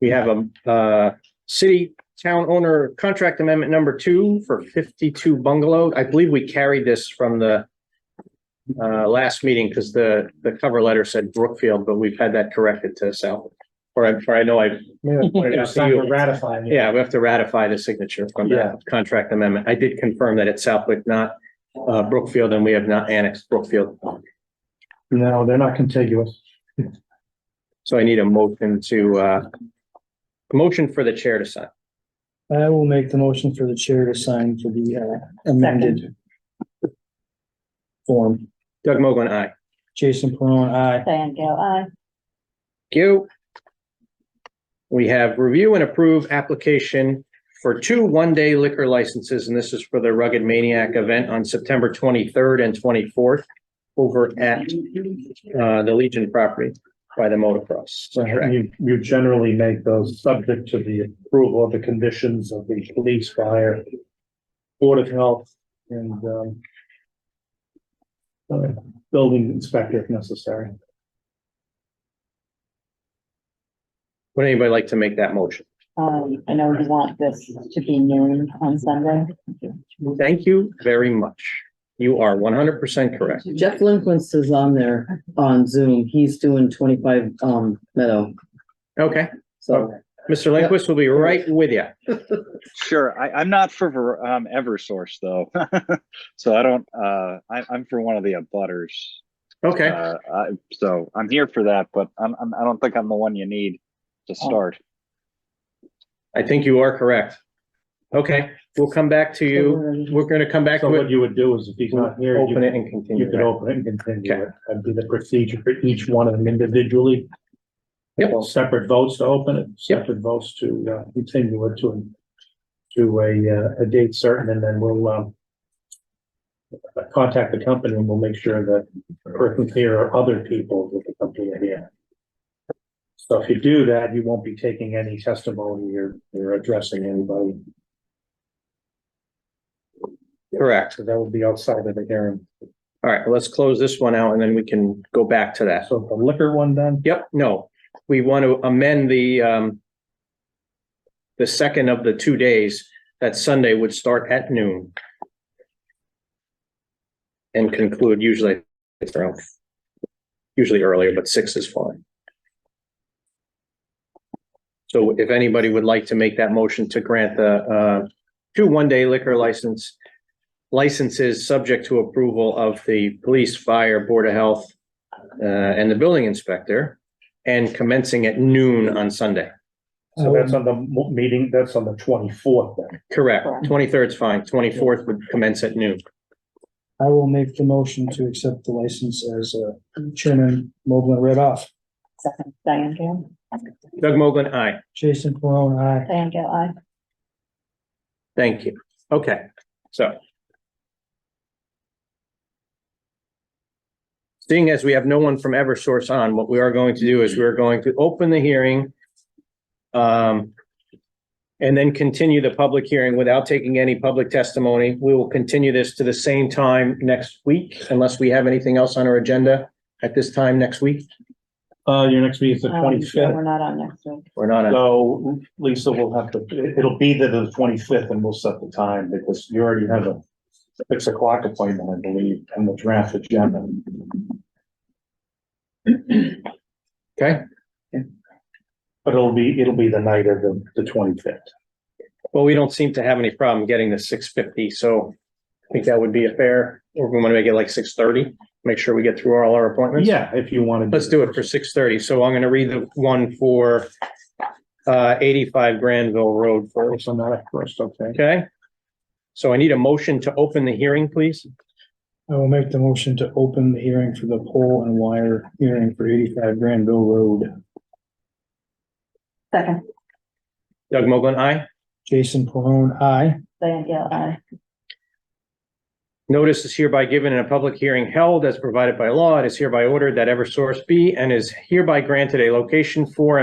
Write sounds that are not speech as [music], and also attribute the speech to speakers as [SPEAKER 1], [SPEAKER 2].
[SPEAKER 1] We have a, uh, city town owner contract amendment number two for fifty-two bungalow. I believe we carried this from the uh, last meeting because the, the cover letter said Brookfield, but we've had that corrected to South. Or I, or I know I,
[SPEAKER 2] [laughs] Yeah, it's time to ratify it.
[SPEAKER 1] yeah, we have to ratify the signature from
[SPEAKER 2] Yeah.
[SPEAKER 1] that contract amendment. I did confirm that it's Southwick, not uh, Brookfield, and we have not annexed Brookfield.
[SPEAKER 2] No, they're not contiguous.
[SPEAKER 1] So I need a motion to, uh, a motion for the chair to sign.
[SPEAKER 2] I will make the motion for the chair to sign for the uh, amended form.
[SPEAKER 1] Doug Mogul, aye.
[SPEAKER 2] Jason Peron, aye.
[SPEAKER 3] Diane Gale, aye.
[SPEAKER 1] Thank you. We have review and approve application for two one-day liquor licenses, and this is for the Rugged Maniac event on September twenty-third and twenty-fourth over at uh, the Legion property by the motocross.
[SPEAKER 4] So
[SPEAKER 1] track.
[SPEAKER 4] you, you generally make those subject to the approval of the conditions of the police, fire, board of health, and, um, uh, building inspector if necessary.
[SPEAKER 1] Would anybody like to make that motion?
[SPEAKER 3] Um, I know you want this to be noon on Sunday.
[SPEAKER 1] Thank you very much. You are one hundred percent correct.
[SPEAKER 5] Jeff Lindquist is on there on Zoom. He's doing twenty-five, um, Meadow.
[SPEAKER 1] Okay,
[SPEAKER 5] So
[SPEAKER 1] Mr. Lindquist will be right with you.
[SPEAKER 6] Sure. I, I'm not for Ver- um, Eversource though, [laughs] so I don't. Uh, I, I'm for one of the abutters.
[SPEAKER 1] Okay,
[SPEAKER 6] Uh, I, so I'm here for that, but I'm, I'm, I don't think I'm the one you need to start.
[SPEAKER 1] I think you are correct. Okay, we'll come back to you. We're gonna come back
[SPEAKER 4] So
[SPEAKER 1] to it.
[SPEAKER 4] what you would do is if he's not here, you
[SPEAKER 1] Open it
[SPEAKER 4] could,
[SPEAKER 1] and
[SPEAKER 4] you
[SPEAKER 1] continue.
[SPEAKER 4] could open it and continue it. That'd be the procedure for each one of them individually.
[SPEAKER 1] Yep.
[SPEAKER 4] Separate votes to open it, separate votes to, uh, continue it to, to a, uh, a date certain, and then we'll, um, contact the company and we'll make sure that person's here or other people with the company are here. So if you do that, you won't be taking any testimony or, or addressing anybody,
[SPEAKER 1] Correct.
[SPEAKER 4] so that would be outside of the hearing.
[SPEAKER 1] All right, let's close this one out and then we can go back to that.
[SPEAKER 4] So the liquor one then?
[SPEAKER 1] Yep, no, we want to amend the um the second of the two days, that Sunday would start at noon. And conclude usually it's around usually earlier, but six is fine. So if anybody would like to make that motion to grant the uh two one-day liquor license licenses subject to approval of the police, fire, board of health, uh, and the building inspector and commencing at noon on Sunday.
[SPEAKER 4] So that's on the mo- meeting, that's on the twenty-fourth then.
[SPEAKER 1] Correct.
[SPEAKER 3] Correct.
[SPEAKER 1] Twenty-third is fine. Twenty-fourth would commence at noon.
[SPEAKER 2] I will make the motion to accept the license as uh, Chairman Mogul read off.
[SPEAKER 3] Second, Diane Gale.
[SPEAKER 1] Doug Mogul, aye.
[SPEAKER 2] Jason Peron, aye.
[SPEAKER 3] Diane Gale, aye.
[SPEAKER 1] Thank you. Okay, so. Seeing as we have no one from Eversource on, what we are going to do is we're going to open the hearing. Um. And then continue the public hearing without taking any public testimony. We will continue this to the same time next week unless we have anything else on our agenda at this time next week.
[SPEAKER 4] Uh, your next meeting is the
[SPEAKER 3] Um,
[SPEAKER 4] twenty-fifth,
[SPEAKER 3] We're not on next week.
[SPEAKER 1] We're not on.
[SPEAKER 4] so Lisa will have to, it- it'll be the- the twenty-fifth and we'll set the time because you already have a six o'clock appointment, I believe, on the draft agenda.
[SPEAKER 1] Okay,
[SPEAKER 4] But it'll be, it'll be the night of the, the twenty-fifth.
[SPEAKER 1] well, we don't seem to have any problem getting the six fifty, so I think that would be a fair, or we want to make it like six thirty, make sure we get through all our appointments.
[SPEAKER 4] Yeah, if you wanted.
[SPEAKER 1] Let's do it for six thirty, so I'm gonna read the one for uh eighty-five Granville Road first,
[SPEAKER 4] First, I'm not at first, okay.
[SPEAKER 1] okay? So I need a motion to open the hearing, please.
[SPEAKER 2] I will make the motion to open the hearing for the pole and wire hearing for eighty-five Granville Road.
[SPEAKER 3] Second,
[SPEAKER 1] Doug Mogul, aye.
[SPEAKER 2] Jason Peron, aye.
[SPEAKER 3] Diane Gale, aye.
[SPEAKER 1] Notice is hereby given in a public hearing held as provided by law. It is hereby ordered that Eversource be and is hereby granted a location for